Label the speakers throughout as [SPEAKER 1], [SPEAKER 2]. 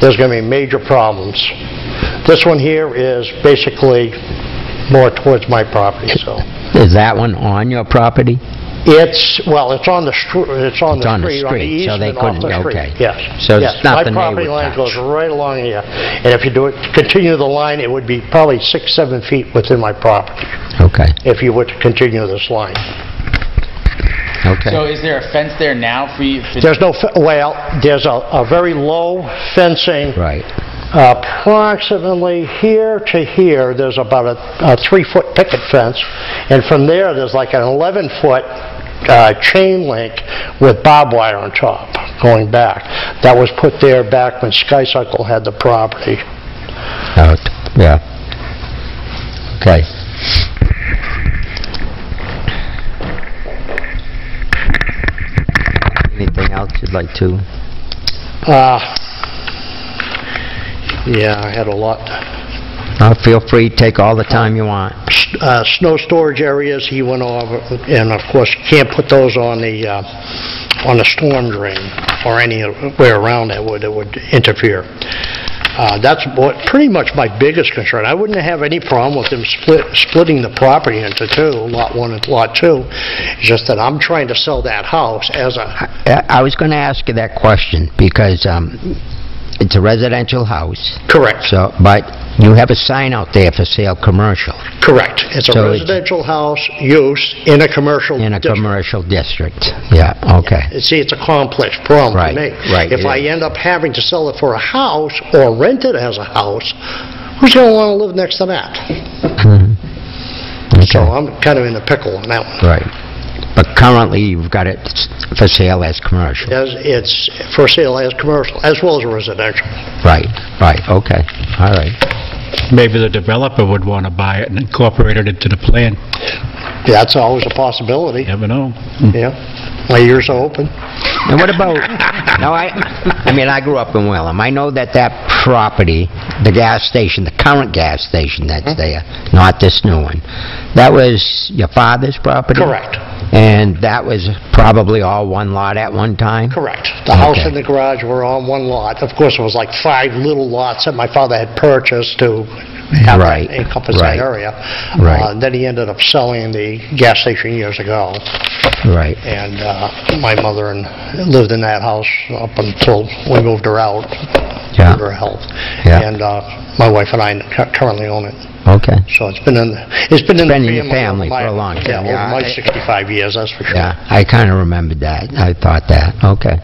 [SPEAKER 1] there's going to be major problems. This one here is basically more towards my property, so.
[SPEAKER 2] Is that one on your property?
[SPEAKER 1] It's, well, it's on the str, it's on
[SPEAKER 2] It's
[SPEAKER 1] the street, on the
[SPEAKER 2] so they
[SPEAKER 1] easement off
[SPEAKER 2] couldn't,
[SPEAKER 1] the
[SPEAKER 2] okay.
[SPEAKER 1] street, yes.
[SPEAKER 2] So
[SPEAKER 1] yes.
[SPEAKER 2] it's
[SPEAKER 1] My
[SPEAKER 2] nothing they would touch.
[SPEAKER 1] property line goes right along here, and if you do it, continue the line, it would be probably six, seven feet within my property,
[SPEAKER 2] Okay,
[SPEAKER 1] if you were to continue this line.
[SPEAKER 2] okay.
[SPEAKER 3] So is there a fence there now for you? for-
[SPEAKER 1] There's no, fe- well, there's a, a very low fencing.
[SPEAKER 2] Right,
[SPEAKER 1] Approximately here to here, there's about a a three-foot picket fence, and from there, there's like an 11-foot chain link with barbed wire on top going back. That was put there back when Skycycle had the property.
[SPEAKER 2] out, yeah. Okay. Anything else you'd like to?
[SPEAKER 1] Uh, Yeah, I had a lot.
[SPEAKER 2] Uh, Feel free, take all the time you want.
[SPEAKER 1] S- uh, Snow storage areas, he went over, and of course, you can't put those on the, uh, on the storm drain or anywhere around that would, that would interfere. Uh, That's what, pretty much my biggest concern. I wouldn't have any problem with them split, splitting the property into two, Lot 1 and Lot 2. It's just that I'm trying to sell that house as a,
[SPEAKER 2] I I was going to ask you that question because um, it's a residential house,
[SPEAKER 1] correct,
[SPEAKER 2] so, but you have a sign out there for sale commercial
[SPEAKER 1] correct. It's a
[SPEAKER 2] So it's-
[SPEAKER 1] residential house use in a commercial
[SPEAKER 2] in a
[SPEAKER 1] district.
[SPEAKER 2] commercial district. Yeah, okay.
[SPEAKER 1] See, it's a complex problem for
[SPEAKER 2] Right,
[SPEAKER 1] me.
[SPEAKER 2] right,
[SPEAKER 1] If
[SPEAKER 2] it
[SPEAKER 1] I
[SPEAKER 2] is.
[SPEAKER 1] end up having to sell it for a house or rent it as a house, who's going to want to live next to that?
[SPEAKER 2] Mhm.
[SPEAKER 1] So
[SPEAKER 2] Okay,
[SPEAKER 1] I'm kind of in a pickle on that one.
[SPEAKER 2] right. But currently, you've got it s- for sale as commercial.
[SPEAKER 1] As It's for sale as commercial, as well as residential.
[SPEAKER 2] Right, right, okay, all right.
[SPEAKER 4] Maybe the developer would want to buy it and incorporate it into the plan.
[SPEAKER 1] That's always a possibility,
[SPEAKER 4] Never know.
[SPEAKER 1] yeah. My ears are open.
[SPEAKER 2] And what about, no, I, I mean, I grew up in Welham. I know that that property, the gas station, the current gas station
[SPEAKER 1] Mm-hmm.
[SPEAKER 2] that's there, not this new one, that was your father's property?
[SPEAKER 1] Correct.
[SPEAKER 2] And that was probably all one lot at one time?
[SPEAKER 1] Correct. The house
[SPEAKER 2] Okay.
[SPEAKER 1] and the garage were on one lot. Of course, it was like five little lots that my father had purchased to have
[SPEAKER 2] Right,
[SPEAKER 1] that encompass that
[SPEAKER 2] right,
[SPEAKER 1] area.
[SPEAKER 2] right.
[SPEAKER 1] Uh, Then he ended up selling the gas station years ago,
[SPEAKER 2] Right,
[SPEAKER 1] and uh, my mother and lived in that house up until we moved her out
[SPEAKER 2] Yeah.
[SPEAKER 1] due to her health.
[SPEAKER 2] Yeah.
[SPEAKER 1] And uh, my wife and I cu- currently own it.
[SPEAKER 2] okay,
[SPEAKER 1] So it's been in, it's been in the
[SPEAKER 2] Been in your
[SPEAKER 1] family. over
[SPEAKER 2] family
[SPEAKER 1] my-
[SPEAKER 2] for a long time,
[SPEAKER 1] Yeah,
[SPEAKER 2] yeah.
[SPEAKER 1] over my 65 years, that's for sure.
[SPEAKER 2] yeah, I kind of remembered that, I thought that, okay.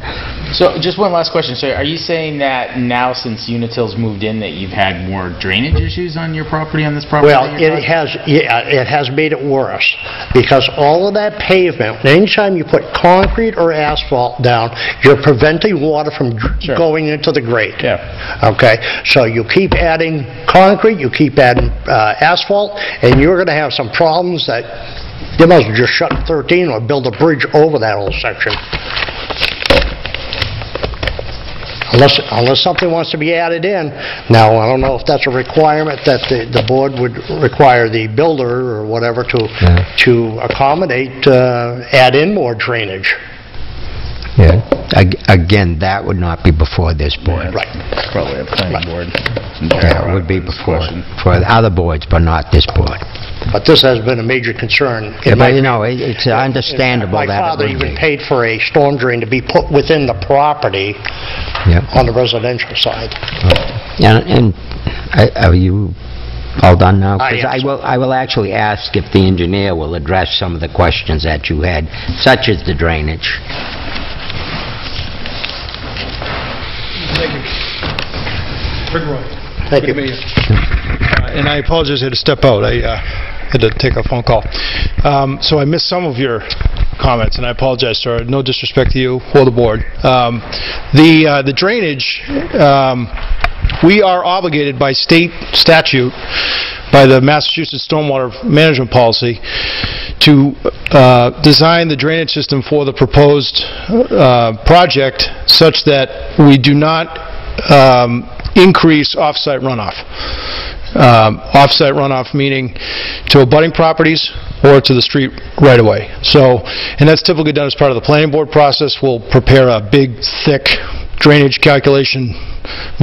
[SPEAKER 3] So just one last question. So are you saying that now since Unitil's moved in that you've had more drainage issues on your property, on this property?
[SPEAKER 1] Well,
[SPEAKER 3] than your
[SPEAKER 1] it
[SPEAKER 3] property?
[SPEAKER 1] has, yeah, it has made it worse, because all of that pavement, anytime you put concrete or asphalt down, you're preventing water from dr-
[SPEAKER 3] Sure.
[SPEAKER 1] going into the grate.
[SPEAKER 3] Yeah.
[SPEAKER 1] Okay? So you keep adding concrete, you keep adding uh, asphalt, and you're gonna have some problems that, you might as well just shut 13 or build a bridge over that whole section. Unless, unless something wants to be added in. Now, I don't know if that's a requirement that the, the board would require the builder or whatever to,
[SPEAKER 2] Yeah.
[SPEAKER 1] to accommodate, uh, add in more drainage.
[SPEAKER 2] Yeah. Ag- Again, that would not be before this board.
[SPEAKER 1] Right.
[SPEAKER 3] Probably a planning board.
[SPEAKER 2] Yeah, it would be before, for the other boards, but not this board.
[SPEAKER 1] But this has been a major concern. in my-
[SPEAKER 2] But, you know, it- it's understandable
[SPEAKER 1] My
[SPEAKER 2] that it
[SPEAKER 1] father
[SPEAKER 2] would be.
[SPEAKER 1] even paid for a storm drain to be put within the property
[SPEAKER 2] Yeah.
[SPEAKER 1] on the residential side.
[SPEAKER 2] And, and I- are you all done now?
[SPEAKER 1] I am,
[SPEAKER 2] 'Cause
[SPEAKER 1] sir.
[SPEAKER 2] will, I will actually ask if the engineer will address some of the questions that you had, such as the drainage.
[SPEAKER 5] Thank you. Rick Roy.
[SPEAKER 1] Thank you.
[SPEAKER 5] Good to meet you. Uh, And I apologize, I had to step out. I uh, had to take a phone call. Um, So I missed some of your comments, and I apologize, sir. No disrespect to you or the board. Um, The uh, the drainage, um, we are obligated by state statute, by the Massachusetts Stormwater Management Policy, to uh, design the drainage system for the proposed uh, project such that we do not um, increase off-site runoff. Um, Off-site runoff meaning to abutting properties or to the street right away. So, and that's typically done as part of the planning board process. We'll prepare a big, thick drainage calculation